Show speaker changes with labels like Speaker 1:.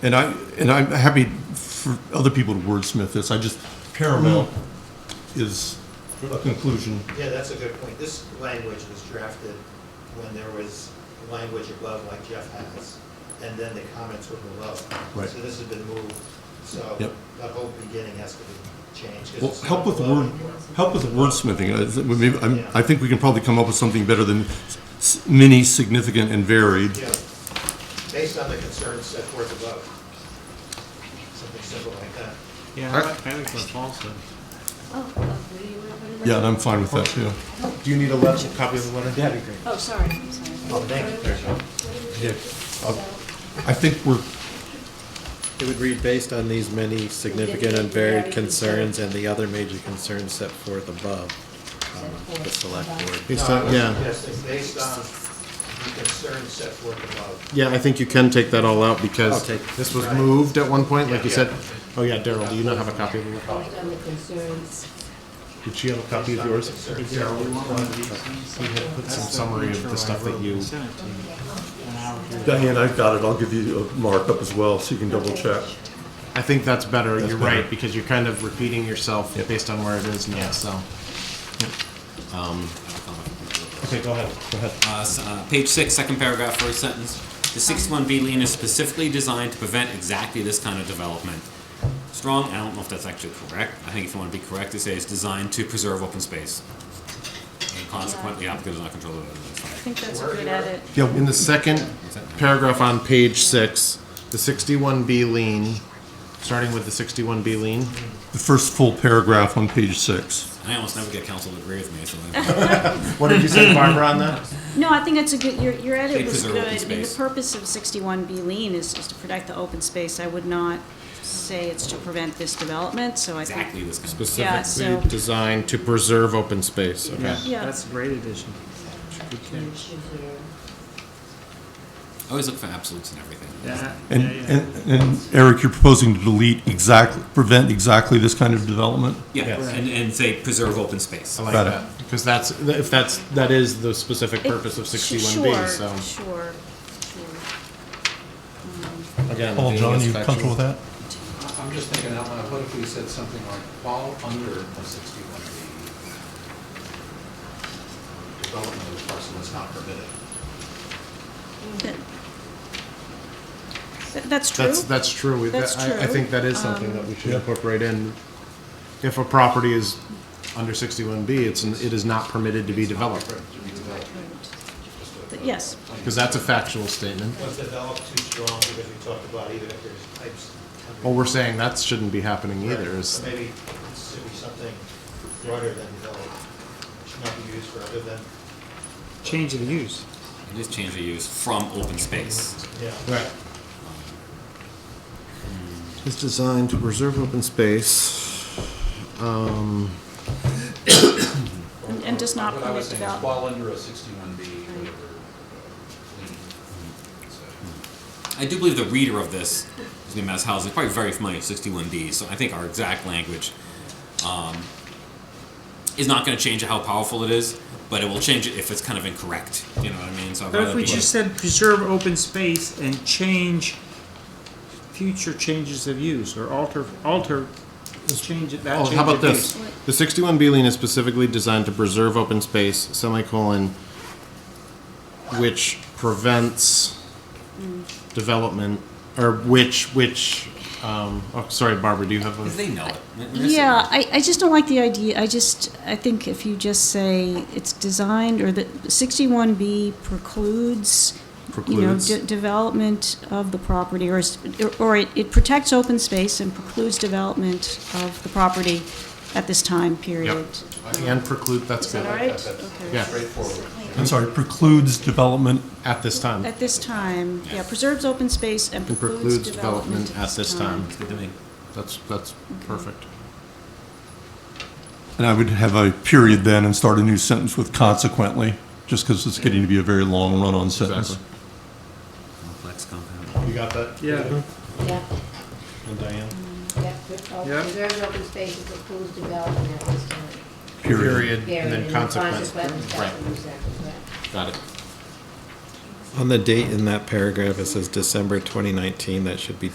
Speaker 1: and I, and I'm happy for other people to wordsmith this, I just, paramount is a conclusion.
Speaker 2: Yeah, that's a good point. This language was drafted when there was language above like Jeff has, and then the comments were below.
Speaker 1: Right.
Speaker 2: So this has been moved, so
Speaker 1: Yep.
Speaker 2: that whole beginning has to be changed. 'cause
Speaker 1: Well,
Speaker 2: it's
Speaker 1: help
Speaker 2: not
Speaker 1: with
Speaker 2: below
Speaker 1: word,
Speaker 2: anymore.
Speaker 1: help with wordsmithing. I th- maybe- I'm-
Speaker 2: Yeah.
Speaker 1: I think we can probably come up with something better than s- s- many, significant, and varied.
Speaker 2: Yeah, based on the concerns set forth above. Something simple like that.
Speaker 3: Yeah, I like, I like what Paul said.
Speaker 4: Oh, lovely. You wanna put it right
Speaker 1: Yeah, and I'm
Speaker 4: there?
Speaker 1: fine with that, too.
Speaker 5: Do you need a letter, copy of the letter? That'd be great.
Speaker 4: Oh, sorry, sorry.
Speaker 2: Oh, thank you.
Speaker 1: I think we're,
Speaker 5: It would read, based on these many significant and varied concerns and the other major concerns set forth above, um, the select board.
Speaker 6: Based
Speaker 2: No,
Speaker 6: on-
Speaker 2: I was
Speaker 6: yeah,
Speaker 2: suggesting Based on the concerns set forth above.
Speaker 6: yeah, I think you can take that all out
Speaker 5: I'll
Speaker 6: because
Speaker 5: take-
Speaker 6: this was moved at one point, like you
Speaker 2: Yeah.
Speaker 6: said. Oh yeah, Daryl, do you not have a copy of it?
Speaker 4: Based
Speaker 7: um,
Speaker 4: on the concerns.
Speaker 6: Did she have a copy of yours?
Speaker 5: We had put
Speaker 6: Some summary of the stuff that you.
Speaker 3: Send it to me. And I'll do it.
Speaker 1: Diane, I've got it. I'll give you a markup as well, so you can double check.
Speaker 6: I think that's better, you're
Speaker 1: better.
Speaker 6: right, because you're kind of repeating yourself
Speaker 1: Yep.
Speaker 6: based on where it is now, so. Okay, go ahead, go ahead.
Speaker 8: Uh, s- uh, page six, second paragraph, first sentence. The 61B lien is specifically designed to prevent exactly this kind of development. Strong, I don't know if that's actually correct. I think if you want to be correct, it says designed to preserve open space. And consequently, the applicant does not control the that's fine.
Speaker 4: I think that's a good edit.
Speaker 6: Yeah, in the second paragraph on page six, the sixty-one B lien, starting with the sixty-one B lien.
Speaker 1: The first full paragraph on page six.
Speaker 8: I almost never get counsel to agree with me, so I-
Speaker 6: What did you say, Barbara, on that?
Speaker 4: No, I think that's a good, your, your
Speaker 8: They
Speaker 4: edit was
Speaker 8: preserve
Speaker 4: good.
Speaker 8: open
Speaker 4: I mean, the
Speaker 8: space.
Speaker 4: purpose of sixty-one B lean is is to protect the open space. I would not say it's to prevent this development, so I think.
Speaker 8: exactly this kind of.
Speaker 4: Yeah, so-
Speaker 6: Specifically designed to preserve open space, okay?
Speaker 4: Yeah.
Speaker 3: That's a great addition. Good catch.
Speaker 8: I always look for absolutes in everything.
Speaker 3: Yeah,
Speaker 1: And,
Speaker 3: yeah, yeah.
Speaker 1: and and Eric, you're proposing to delete exactly, prevent exactly this kind of development?
Speaker 8: Yeah, and, and say preserve open space.
Speaker 6: I like
Speaker 1: Got it.
Speaker 6: that, because that's, if that's, that is the specific
Speaker 4: It-
Speaker 6: purpose of
Speaker 4: sh-
Speaker 6: sixty-one B, so.
Speaker 4: Sure, sure, sure.
Speaker 6: again,
Speaker 1: Paul, Oh,
Speaker 6: being
Speaker 1: John,
Speaker 6: as
Speaker 1: you
Speaker 6: factual-
Speaker 1: comfortable with that?
Speaker 9: I'm just thinking out loud, what if we said something like fall under the sixty-one B?
Speaker 2: Development of the parcel is not permitted.
Speaker 4: That- that- That's true.
Speaker 6: That's, that's true. We-
Speaker 4: That's
Speaker 6: that- I, I
Speaker 4: true.
Speaker 6: think that is something that we
Speaker 1: Um,
Speaker 6: should incorporate in. If a property is under sixty-one B, it's, n- it is not permitted to be developed,
Speaker 4: Th- Yes.
Speaker 6: because that's a factual statement.
Speaker 2: Was developed too strong because we talked about even if there's pipes. under-
Speaker 6: Well, we're saying that shouldn't be happening either,
Speaker 2: So
Speaker 6: is,
Speaker 2: Maybe it should be something broader than developed, should not be used for other than,
Speaker 3: Change of the use.
Speaker 8: Just change the use from open space.
Speaker 2: yeah.
Speaker 5: It's designed to preserve open space. Um,
Speaker 4: And- and does not
Speaker 9: What I was
Speaker 4: permit
Speaker 9: saying is
Speaker 4: develop-
Speaker 9: fall under a sixty-one B, whatever. uh,
Speaker 8: I do believe the reader of this, his name is House, is probably very familiar with 61D, so I think our exact language um, is not going to change how powerful it is, but it will change it if it's kind of incorrect. You know what I mean? So I'd
Speaker 3: But if
Speaker 8: rather
Speaker 3: we
Speaker 8: be-
Speaker 3: just said preserve open space and change future changes of use or alter, alter, change it, that
Speaker 6: oh,
Speaker 3: change
Speaker 6: how about
Speaker 3: of
Speaker 6: this?
Speaker 3: use.
Speaker 6: The sixty-one B lien is specifically designed to preserve open space, semicolon, which prevents development, or which, which, um, oh, sorry, Barbara, do you have a?
Speaker 8: Because they know it. They're
Speaker 4: Yeah,
Speaker 8: saying
Speaker 4: I, I just don't like the idea, I just, I think if you just say it's designed, or that 61B precludes, you know,
Speaker 6: Precludes.
Speaker 4: de- development of the property, or, is- or it it protects open space and precludes development of the property at this time period.
Speaker 6: And preclude, that's
Speaker 4: Is that
Speaker 6: good.
Speaker 4: all right?
Speaker 6: Yeah.
Speaker 4: Okay.
Speaker 9: Straightforward.
Speaker 1: I'm sorry, precludes development
Speaker 6: At this time.
Speaker 4: At this time, yeah, preserves open space and
Speaker 6: And
Speaker 4: precludes development
Speaker 6: at this time.
Speaker 8: It's good to me.
Speaker 6: That's, that's perfect.
Speaker 1: And I would have a period then and start a new sentence with consequently, just because it's getting to be a very long run-on sentence.
Speaker 6: Exactly.
Speaker 8: Complex compound.
Speaker 6: You got that?
Speaker 3: Yeah.
Speaker 7: Yeah,
Speaker 6: And Diane?
Speaker 7: yeah, oh,
Speaker 3: Yeah.
Speaker 7: preserved open spaces approved development at this time.
Speaker 6: Period,
Speaker 7: Buried
Speaker 6: and then
Speaker 7: in
Speaker 6: consequence.
Speaker 7: consequence,
Speaker 6: Right,
Speaker 7: that's what we said, right.
Speaker 6: got it.
Speaker 5: On the date in that paragraph, it says December 2019, that should be